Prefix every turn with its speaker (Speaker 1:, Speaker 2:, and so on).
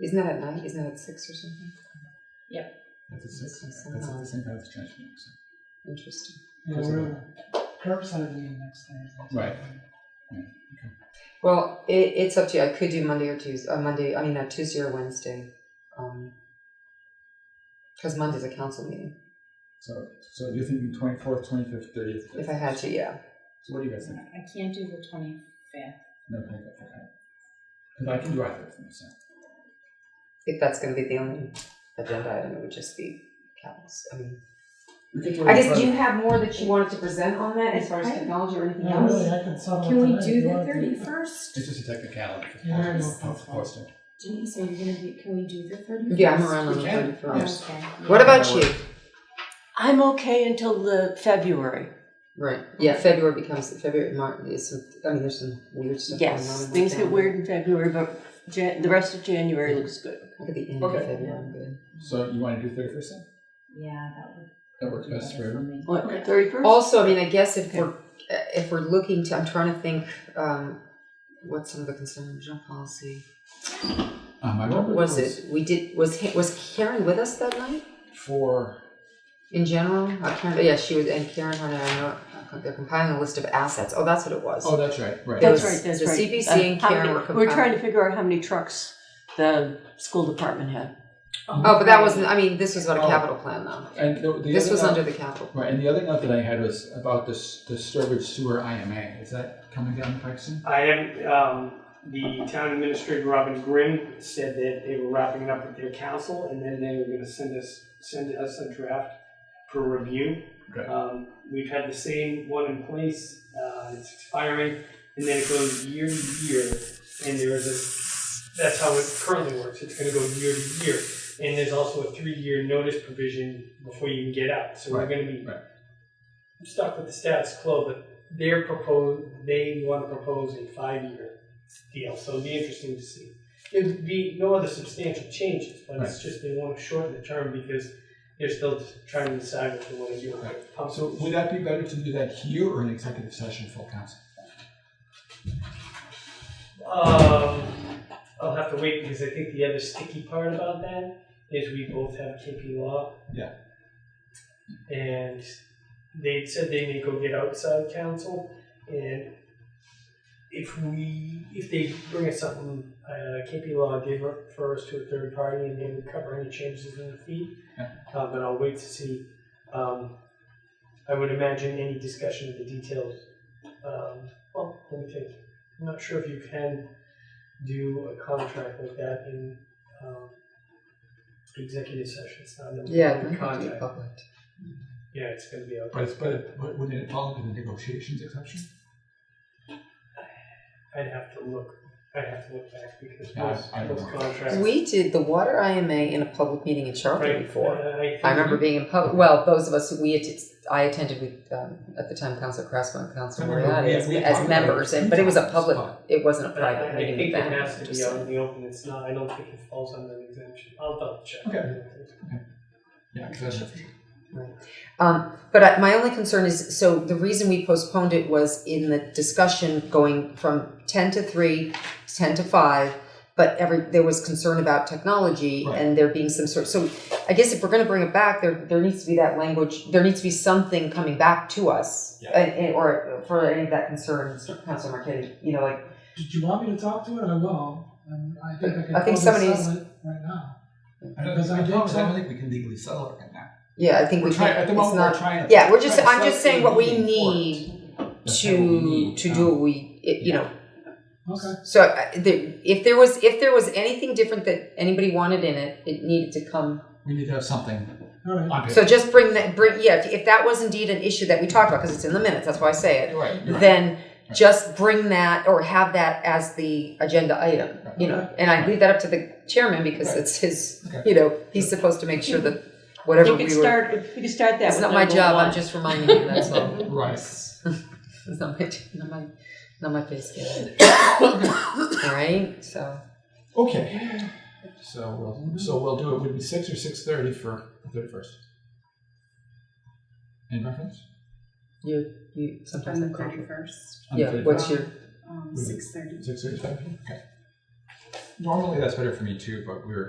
Speaker 1: Isn't that at night? Isn't that at six or something?
Speaker 2: That's at six,
Speaker 1: Six
Speaker 2: yeah. that's at
Speaker 1: somehow.
Speaker 2: the same, that's the trash meeting, so.
Speaker 1: Interesting.
Speaker 3: Yeah,
Speaker 2: Close
Speaker 3: we're curbside meeting next Thursday.
Speaker 2: Right.
Speaker 1: Well, it, it's up to you. I could do Monday or Tuesday. Uh, Monday, I mean, uh, Tuesday or Wednesday. Because Monday's a council meeting.
Speaker 2: So, so you're thinking twenty-fourth, twenty-fifth, thirtieth?
Speaker 1: If I had to, yeah.
Speaker 2: So what do you guys think?
Speaker 4: I can't do the twenty fifth.
Speaker 2: No, thank you, okay. Because I can do either of them, so.
Speaker 1: If that's going to be the only agenda item, it would just be cows. I mean,
Speaker 2: We could do it
Speaker 1: I
Speaker 2: in
Speaker 1: guess
Speaker 2: front
Speaker 1: do
Speaker 2: of-
Speaker 1: you have more that you wanted to present on that as far as
Speaker 4: I-
Speaker 1: technology or anything
Speaker 3: Yeah, really,
Speaker 1: else?
Speaker 3: I can settle it
Speaker 4: Can we
Speaker 3: tonight
Speaker 4: do
Speaker 3: if you
Speaker 4: the
Speaker 3: want to.
Speaker 4: thirty first?
Speaker 2: It's just a technicality.
Speaker 3: Yeah, no
Speaker 4: Yes.
Speaker 2: Of
Speaker 3: problem.
Speaker 2: course, yeah.
Speaker 4: Denise, are you gonna be, can we do the thirty first?
Speaker 1: Yeah, I'm around on the
Speaker 2: We can.
Speaker 1: thirty-first.
Speaker 4: Okay.
Speaker 1: What about you?
Speaker 5: I'm okay until the February.
Speaker 1: Right. Yeah, February becomes February. March is some. I mean, there's some weird stuff. going on
Speaker 5: Yes,
Speaker 1: in my
Speaker 5: things get
Speaker 1: family.
Speaker 5: weird in February, but Jan- the rest of January looks good.
Speaker 1: Look at the end
Speaker 2: Okay.
Speaker 1: of February. I'm good.
Speaker 2: So you want to do thirty-first then?
Speaker 4: Yeah, that would.
Speaker 2: That works
Speaker 4: be
Speaker 2: best for
Speaker 4: better
Speaker 2: everyone.
Speaker 4: me.
Speaker 5: What, thirty first?
Speaker 1: Also, I mean, I guess if
Speaker 5: Okay.
Speaker 1: we're uh, if we're looking to, I'm trying to think. Um, what's some of the concerns on policy?
Speaker 2: Um, I
Speaker 1: What
Speaker 2: remember
Speaker 1: was it? We did. Was Ha- was Karen with us that night?
Speaker 2: For,
Speaker 1: In general, uh, Karen, yeah, she was, and Karen Hunter. I know uh, they're compiling a list of assets. Oh, that's what it was.
Speaker 2: oh, that's right, right.
Speaker 5: That's
Speaker 1: was
Speaker 5: right, that's
Speaker 1: the
Speaker 5: right.
Speaker 1: CPC
Speaker 5: Uh,
Speaker 1: and
Speaker 5: how
Speaker 1: Karen
Speaker 5: many-
Speaker 1: were
Speaker 5: We're trying
Speaker 1: compiling.
Speaker 5: to figure out how many trucks the school department had.
Speaker 1: Oh, but that wasn't. I mean, this was about a
Speaker 2: Oh.
Speaker 1: capital plan, though.
Speaker 2: And the, the
Speaker 1: This
Speaker 2: other
Speaker 1: was
Speaker 2: note-
Speaker 1: under the capital. plan.
Speaker 2: Right, and the other note that I had was about this, the Sturbridge Sewer IMA. Is that coming down the pike soon?
Speaker 6: I haven't, um, the town administrator, Robin Grimm, said that they were wrapping it up with their council, and then they were gonna send us, send us a draft for review.
Speaker 2: Okay.
Speaker 6: Um, we've had the same one in place, uh, it's expiring, and then it goes year to year, and there is a, that's how it currently works, it's gonna go year to year. And there's also a three-year notice provision before you can get out, so we're
Speaker 2: Right,
Speaker 6: gonna be
Speaker 2: right.
Speaker 6: stuck with the status quo, but they're propose, they want to propose a five-year deal, so it'll be interesting to see. There'd be no other substantial changes, but it's just they want to shorten the term because they're still trying to decide what they want to do. with their pump.
Speaker 2: So would that be better to do that here or in executive session full council?
Speaker 6: Um, I'll have to wait because I think the other sticky part about that is we both have KP Law.
Speaker 2: Yeah.
Speaker 6: And they said they may go get outside counsel, and if we, if they bring us something, uh, KP Law did refer us to a third party and they would cover any changes in the fee.
Speaker 2: Yeah.
Speaker 6: Uh, but I'll wait to see, um, I would imagine any discussion of the details, um, well, let me think. I'm not sure if you can do a contract like that in um, executive session. It's not a
Speaker 1: Yeah,
Speaker 6: a
Speaker 1: it might be
Speaker 6: contract.
Speaker 1: public.
Speaker 6: Yeah, it's going to be okay.
Speaker 2: But it's, but it- but wouldn't it fall under the negotiations exception?
Speaker 6: I'd have to look. I'd have to look back because
Speaker 2: Yeah, I-
Speaker 6: most,
Speaker 2: I don't
Speaker 6: most
Speaker 2: know.
Speaker 6: contracts.
Speaker 1: We did the water IMA in a public meeting in Sharpton
Speaker 6: right,
Speaker 1: before.
Speaker 6: uh, I,
Speaker 1: I remember being in public. Well, those of us who we att- I attended with um, at the time, Council Crespo and Council
Speaker 2: I remember
Speaker 1: Moriarty
Speaker 2: we-
Speaker 1: as,
Speaker 2: we talked
Speaker 1: as
Speaker 2: about it
Speaker 1: members,
Speaker 2: a
Speaker 1: and
Speaker 2: few
Speaker 1: but it was a
Speaker 2: times.
Speaker 1: public. It wasn't a
Speaker 6: I, I,
Speaker 1: private
Speaker 6: I
Speaker 1: meeting.
Speaker 6: think it
Speaker 1: then,
Speaker 6: has to be
Speaker 1: just
Speaker 6: out
Speaker 1: saying.
Speaker 6: in the open. It's not. I don't think it falls under an exemption. I'll double check.
Speaker 2: Okay. Yeah, because that's.
Speaker 1: Um, but I, my only concern is so the reason we postponed it was in the discussion going from ten to three, ten to five. But every there was concern about technology
Speaker 2: Right.
Speaker 1: and there being some sort. So I guess if we're going to bring it back, there there needs to be that language. There needs to be something coming back to us,
Speaker 2: Yeah.
Speaker 1: and, and- or for any of that concern, Council Marquette, you know, like
Speaker 3: Did you want me to talk to it? I will. And I think I can
Speaker 1: I think
Speaker 3: probably
Speaker 1: somebody's-
Speaker 3: settle it right now.
Speaker 2: I don't
Speaker 3: Because
Speaker 2: think,
Speaker 3: I
Speaker 2: I
Speaker 3: did
Speaker 2: don't I
Speaker 3: tell-
Speaker 2: don't think we can legally settle it right now.
Speaker 1: yeah, I think
Speaker 2: We're
Speaker 1: we
Speaker 2: trying,
Speaker 1: can-
Speaker 2: at the
Speaker 1: it's
Speaker 2: moment,
Speaker 1: not-
Speaker 2: we're trying to.
Speaker 1: yeah, we're just-
Speaker 2: trying to
Speaker 1: I'm just
Speaker 2: set a
Speaker 1: saying what we
Speaker 2: meeting for it.
Speaker 1: need
Speaker 2: That's what we
Speaker 1: to
Speaker 2: need,
Speaker 1: to
Speaker 2: um,
Speaker 1: do what we it, you
Speaker 2: yeah.
Speaker 1: know
Speaker 3: Okay.
Speaker 1: So uh, the, if there was if there was anything different that anybody wanted in it, it needed to come.
Speaker 2: We need to have something
Speaker 3: All right.
Speaker 2: on paper.
Speaker 1: So just bring that bring yeah. If, if that was indeed an issue that we talked about because it's in the minutes, that's why I say it.
Speaker 2: You're right, you're right.
Speaker 1: Then
Speaker 2: Right.
Speaker 1: just bring that or have that as the agenda item, you know. And I leave that up to the chairman because
Speaker 2: Right.
Speaker 1: it's his.
Speaker 2: Okay.
Speaker 1: You know, he's supposed to make sure that whatever
Speaker 5: You
Speaker 1: we
Speaker 5: could
Speaker 1: were.
Speaker 5: start, if we could start that
Speaker 1: it's
Speaker 5: with
Speaker 1: not my
Speaker 5: number
Speaker 1: job.
Speaker 5: one.
Speaker 1: I'm just reminding you. That's all.
Speaker 2: Right.
Speaker 1: It's not my not my not my face. game. all right. So.
Speaker 2: Okay. So we'll, so we'll do it, would it be six or six thirty for the thirty-first? Any preference?
Speaker 1: You, you sometimes
Speaker 4: On
Speaker 1: have
Speaker 4: the
Speaker 1: conflict.
Speaker 4: thirty first,
Speaker 2: On the
Speaker 1: Yeah, what's your,
Speaker 4: um,
Speaker 2: Would you-
Speaker 4: six thirty.
Speaker 2: Six thirty, okay. normally that's better for me too, but we were